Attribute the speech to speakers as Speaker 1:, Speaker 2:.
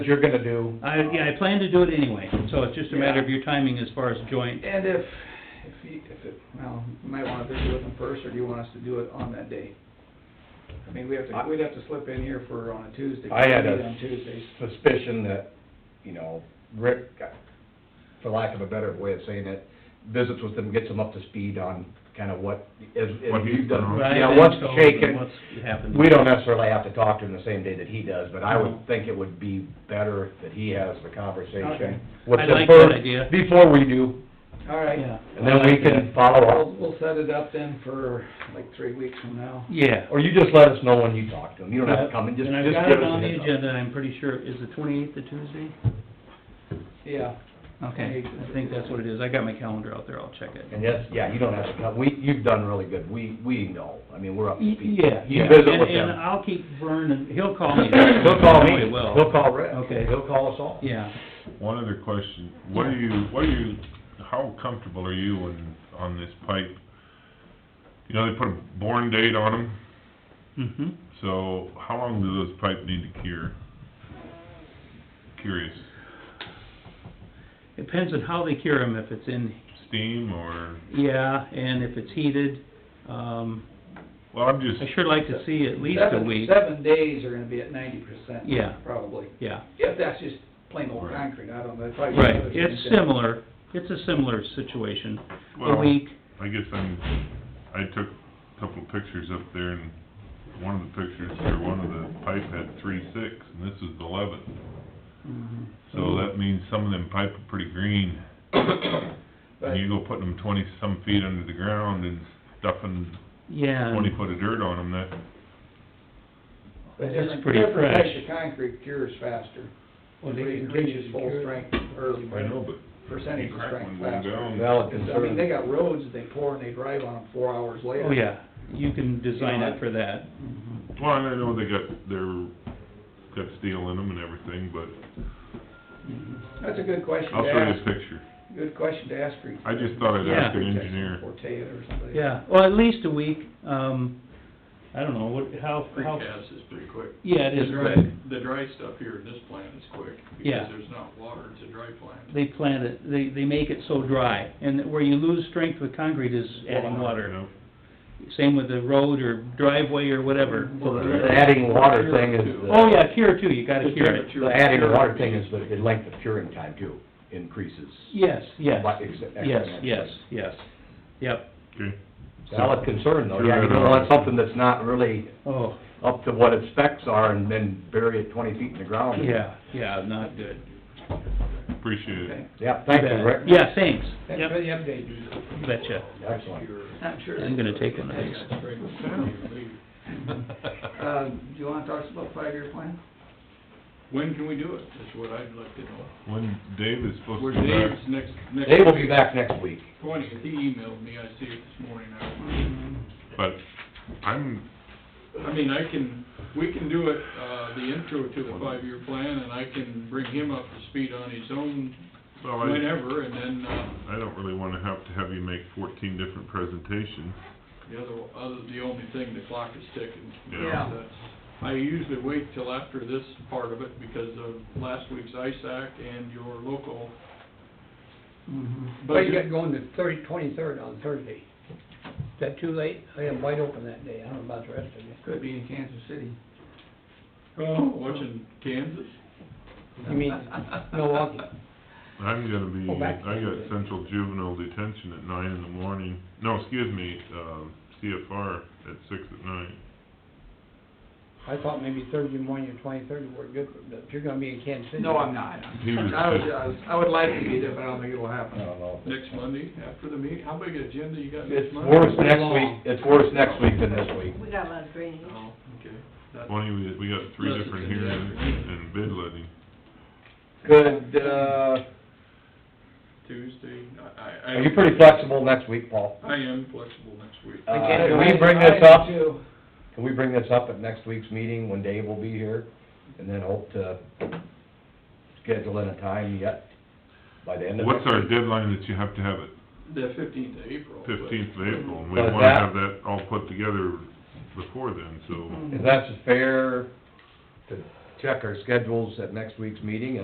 Speaker 1: you're gonna do.
Speaker 2: I, yeah, I plan to do it anyway, so it's just a matter of your timing as far as joint.
Speaker 3: And if, if you, if it, well, you might want to visit with them first, or do you want us to do it on that day? I mean, we have to, we'd have to slip in here for, on a Tuesday.
Speaker 1: I had
Speaker 3: meet
Speaker 1: a
Speaker 3: On Tuesdays.
Speaker 1: suspicion that, you know, Rick, got- for lack of a better way of saying it, visits with them, gets them up to speed on kind of what, as,
Speaker 4: What
Speaker 1: as
Speaker 4: he's
Speaker 1: you've done.
Speaker 4: done.
Speaker 2: Right,
Speaker 1: Yeah,
Speaker 2: and
Speaker 1: what's
Speaker 2: so
Speaker 1: shaken,
Speaker 2: What's happened.
Speaker 1: we don't necessarily have to talk to him the same day that he does, but I
Speaker 2: No.
Speaker 1: would think it would be better that he has the
Speaker 3: Okay.
Speaker 1: conversation. with
Speaker 2: I
Speaker 1: them
Speaker 2: like that
Speaker 1: first,
Speaker 2: idea.
Speaker 1: Before we do,
Speaker 3: All
Speaker 2: Yeah.
Speaker 3: right,
Speaker 1: and then we can follow
Speaker 3: we'll,
Speaker 1: up,
Speaker 3: we'll set it up then for like three weeks from now.
Speaker 2: Yeah.
Speaker 1: or you just let us know when you talk to him, you don't have to come and just,
Speaker 2: And I've
Speaker 1: just
Speaker 2: got
Speaker 1: give
Speaker 2: it
Speaker 1: us a
Speaker 2: on the
Speaker 1: heads up.
Speaker 2: agenda, and I'm pretty sure, is the twenty-eighth the Tuesday?
Speaker 3: Yeah,
Speaker 2: Okay, I think that's what it is, I got my calendar out there, I'll check it.
Speaker 1: And yes, yeah, you don't have to come, we, you've done really good, we, we know, I mean, we're up to
Speaker 2: Y-
Speaker 1: speed.
Speaker 2: Yeah, yeah,
Speaker 1: You visit
Speaker 2: and,
Speaker 1: with
Speaker 2: and
Speaker 1: them.
Speaker 2: I'll keep Vernon, he'll call me.
Speaker 1: He'll call me,
Speaker 2: Oh, he will.
Speaker 1: he'll call Rick,
Speaker 2: Okay.
Speaker 1: he'll call us all.
Speaker 2: Yeah,
Speaker 4: One other question, what are you, what are you, how comfortable are you in, on this pipe? You know, they put a born date on them,
Speaker 2: mm-hmm.
Speaker 4: so how long do those pipe need to cure? Curious,
Speaker 2: Depends on how they cure them, if it's in,
Speaker 4: steam or,
Speaker 2: yeah, and if it's heated. Um,
Speaker 4: well, I'm just,
Speaker 2: I sure like to see at least a
Speaker 3: seven,
Speaker 2: week,
Speaker 3: seven days are gonna be at ninety percent.
Speaker 2: Yeah.
Speaker 3: Probably,
Speaker 2: yeah.
Speaker 3: if that's just plain old
Speaker 4: Right.
Speaker 3: concrete, I don't know. it's probably-
Speaker 2: Right, it's similar, it's a similar situation. A
Speaker 4: well,
Speaker 2: week,
Speaker 4: I guess I'm, I took a couple pictures up there and one of the pictures, or one of the pipe had three six, and this is the eleventh.
Speaker 3: Mm-hmm.
Speaker 2: mhm,
Speaker 4: So that means some of them pipe are pretty green.
Speaker 3: But-
Speaker 4: And you go putting them twenty-some feet under the ground and stuffing
Speaker 2: yeah. and-
Speaker 4: twenty foot of dirt on them, that,
Speaker 3: But
Speaker 2: It's
Speaker 3: different-
Speaker 2: pretty
Speaker 3: Different
Speaker 2: fresh.
Speaker 3: types of concrete cures faster.
Speaker 2: Well, they
Speaker 3: It
Speaker 2: can reach
Speaker 3: reaches full strength early.
Speaker 4: I know, but.
Speaker 3: Percentage of
Speaker 4: You crack
Speaker 3: strength
Speaker 4: one
Speaker 3: faster.
Speaker 4: down.
Speaker 1: Valid
Speaker 3: I mean, they
Speaker 1: concern.
Speaker 3: got roads that they pour and they drive on them four hours later.
Speaker 2: Oh, yeah, you can design it for that. Mhm.
Speaker 4: Well, and I know they got their, got steel in them and everything, but
Speaker 3: That's a good question
Speaker 4: I'll
Speaker 3: to
Speaker 4: show you this
Speaker 3: ask,
Speaker 4: picture.
Speaker 3: good question to ask for.
Speaker 4: I just thought I'd ask an engineer.
Speaker 3: Or Ted or somebody.
Speaker 2: Yeah, well, at least a week, um, I don't know, what, how, how,
Speaker 5: Precast is pretty quick.
Speaker 2: yeah, it is
Speaker 5: The dry-
Speaker 2: quick.
Speaker 5: The dry stuff here in this plant is quick.
Speaker 2: Yeah.
Speaker 5: Because there's not water, it's a dry plant.
Speaker 2: They plant it, they, they make it so dry, and where you lose strength with concrete is adding
Speaker 4: You
Speaker 2: water.
Speaker 4: know?
Speaker 2: Same with the road or driveway or whatever.
Speaker 1: So the adding water thing is,
Speaker 2: Oh,
Speaker 1: the-
Speaker 2: yeah, cure too, you gotta cure it.
Speaker 1: the adding water thing is the, the length of curing time too, increases.
Speaker 2: Yes, yes,
Speaker 1: By ex-
Speaker 2: yes,
Speaker 1: exponentially.
Speaker 2: yes, yes, yep,
Speaker 4: Okay,
Speaker 1: Valid concern though,
Speaker 4: Sure,
Speaker 1: yeah, you
Speaker 4: I
Speaker 1: don't
Speaker 4: know.
Speaker 1: want something that's not really
Speaker 2: oh,
Speaker 1: up to what its specs are and then bury it twenty feet in the ground.
Speaker 2: yeah, yeah, not good.
Speaker 4: appreciate it.
Speaker 3: Okay.
Speaker 1: Yeah, thank you, Rick.
Speaker 2: Yeah, thanks,
Speaker 3: Thanks for
Speaker 2: yep,
Speaker 3: the update.
Speaker 2: betcha.
Speaker 1: Excellent.
Speaker 3: I'm sure.
Speaker 2: I'm gonna take one of these.
Speaker 3: Uh, do you wanna talk about five-year plan?
Speaker 5: When can we do it, is what I'd like to know.
Speaker 4: When Dave is supposed
Speaker 5: Where
Speaker 4: to be back,
Speaker 5: Dave's next, next.
Speaker 1: They will be back next week.
Speaker 5: Twenty, he emailed me, I see it this morning. I
Speaker 3: Mm-hmm.
Speaker 4: but I'm,
Speaker 5: I mean, I can, we can do it, uh, the intro to the five-year plan, and I can bring him up to speed on his own
Speaker 4: well, I,
Speaker 5: whenever, and then, uh,
Speaker 4: I don't really wanna have to have you make fourteen different presentations.
Speaker 5: The other, other, the only thing, the clock is ticking.
Speaker 4: Yeah.
Speaker 3: Yeah.
Speaker 5: That's- I usually wait till after this part of it because of last week's ISAC and your local
Speaker 3: Mm-hmm.
Speaker 6: Well, you got
Speaker 5: budget.
Speaker 6: going to thirty, twenty-third on Thursday. Is that too late? I am wide open that day, I don't know about the rest of you.
Speaker 3: Could be in Kansas City.
Speaker 5: Oh, watching Kansas.
Speaker 6: You mean Milwaukee?
Speaker 4: I'm gonna be,
Speaker 6: Go back.
Speaker 4: I got central juvenile detention at nine in the morning, no, excuse me, um, CFR at six at night.
Speaker 6: I thought maybe Thursday morning or twenty-third would work good, but if you're gonna be in Kansas City.
Speaker 3: No, I'm not.
Speaker 4: He was
Speaker 3: I was,
Speaker 4: just-
Speaker 3: I was, I would like to be there, but I don't think it'll
Speaker 1: I
Speaker 3: happen.
Speaker 1: don't know.
Speaker 5: Next Monday after the meeting. How big an agenda you got
Speaker 1: It's
Speaker 5: next
Speaker 1: worse
Speaker 5: Monday?
Speaker 1: next week, it's worse next week than this week.
Speaker 7: We got a lot of drainage.
Speaker 5: Oh, okay. That-
Speaker 4: Twenty, we, we got three
Speaker 5: Yes,
Speaker 4: different
Speaker 5: it's in the
Speaker 4: hearings
Speaker 5: afternoon.
Speaker 4: and bid letting.
Speaker 1: Good, uh,
Speaker 5: Tuesday, I, I. I-
Speaker 1: are you pretty flexible next week, Paul?
Speaker 5: I am flexible next week.
Speaker 1: Uh,
Speaker 6: can't do
Speaker 1: can we
Speaker 6: anything.
Speaker 1: bring
Speaker 3: I
Speaker 1: this up,
Speaker 3: am too.
Speaker 1: can we bring this up at next week's meeting when Dave will be here? And then hope to schedule in a time yet by the end of
Speaker 4: What's
Speaker 1: next
Speaker 4: our
Speaker 1: week?
Speaker 4: deadline that you have to have it?
Speaker 5: The fifteenth of April. but-
Speaker 4: Fifteenth of April, and we
Speaker 1: But
Speaker 4: wanna
Speaker 1: that- Mm-hmm.
Speaker 4: have that all put together before then, so.
Speaker 1: Is that fair to check our schedules at next week's meeting